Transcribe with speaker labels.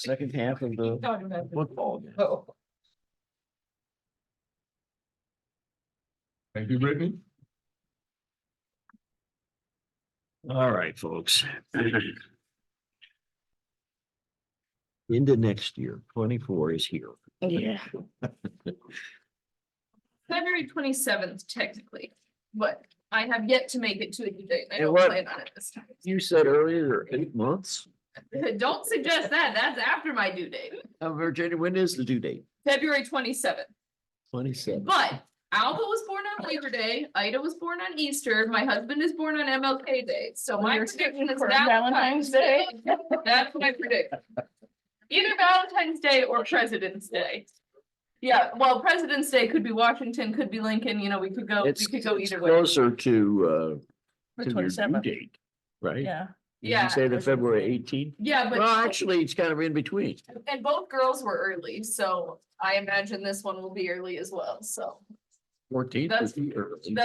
Speaker 1: second half of the
Speaker 2: Talking about the-
Speaker 1: football. game.
Speaker 2: Oh,
Speaker 3: Thank you, Brittany.
Speaker 1: All right, folks. Into next year, twenty-four is here.
Speaker 2: Yeah. February twenty seventh technically, but I have yet to make it to a due date. and I
Speaker 1: And
Speaker 2: don't
Speaker 1: what-
Speaker 2: plan on it this time.
Speaker 1: You said earlier, eight months.
Speaker 2: Don't suggest that. That's after my due date,
Speaker 1: Uh, Virginia, when is the due date?
Speaker 2: February twenty seventh.
Speaker 1: Twenty-seven.
Speaker 2: But Alba was born on Labor Day, Ida was born on Easter, my husband is born on MLK Day, so my
Speaker 4: You're
Speaker 2: prediction
Speaker 4: shooting
Speaker 2: is
Speaker 4: for
Speaker 2: that.
Speaker 4: Valentine's Day.
Speaker 2: That's my prediction. Either Valentine's Day or President's Day. Yeah, well, President's Day could be Washington, could be Lincoln, you know, we could go, we
Speaker 1: It's
Speaker 2: could go
Speaker 1: it's
Speaker 2: either way.
Speaker 1: closer to uh
Speaker 4: The
Speaker 1: to your due
Speaker 4: 27th,
Speaker 1: date, right?
Speaker 4: yeah.
Speaker 1: Did you
Speaker 2: Yeah,
Speaker 1: say the February eighteenth?
Speaker 2: yeah,
Speaker 1: Well,
Speaker 2: but,
Speaker 1: actually, it's kind of in between.
Speaker 2: and both girls were early, so I imagine this one will be early as well, so.
Speaker 1: Fourteenth
Speaker 2: That's-
Speaker 1: is the early.